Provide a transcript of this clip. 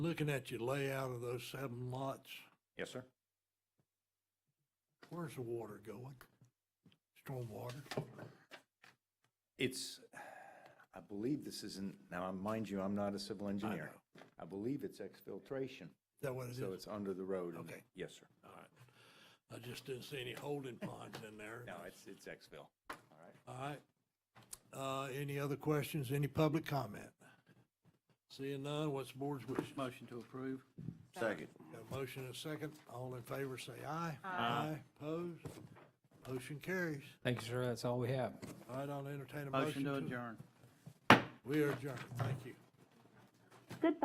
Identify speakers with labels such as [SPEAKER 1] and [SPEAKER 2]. [SPEAKER 1] Looking at your layout of those seven lots,
[SPEAKER 2] Yes, sir.
[SPEAKER 1] where's the water going? Stormwater?
[SPEAKER 2] It's, I believe this isn't, now, mind you, I'm not a civil engineer.
[SPEAKER 1] know.
[SPEAKER 2] I believe it's exfiltration,
[SPEAKER 1] Is that what it
[SPEAKER 2] so
[SPEAKER 1] is?
[SPEAKER 2] it's under the road. and-
[SPEAKER 1] Okay.
[SPEAKER 2] Yes, sir.
[SPEAKER 1] All right. I just didn't see any holding ponds in there.
[SPEAKER 2] No, it's, it's exfil. All right.
[SPEAKER 1] All right. Uh, any other questions, any public comment? Seeing none, what's the board's wish?
[SPEAKER 3] Motion to approve.
[SPEAKER 4] Second.
[SPEAKER 1] Got a motion and a second. All in favor, say aye. Aye. Opposed? Motion carries.
[SPEAKER 5] Thank you, sir. That's all we have.
[SPEAKER 1] All right, I'll entertain a
[SPEAKER 3] Motion
[SPEAKER 1] motion.
[SPEAKER 3] to adjourn.
[SPEAKER 1] We are adjourned. Thank you.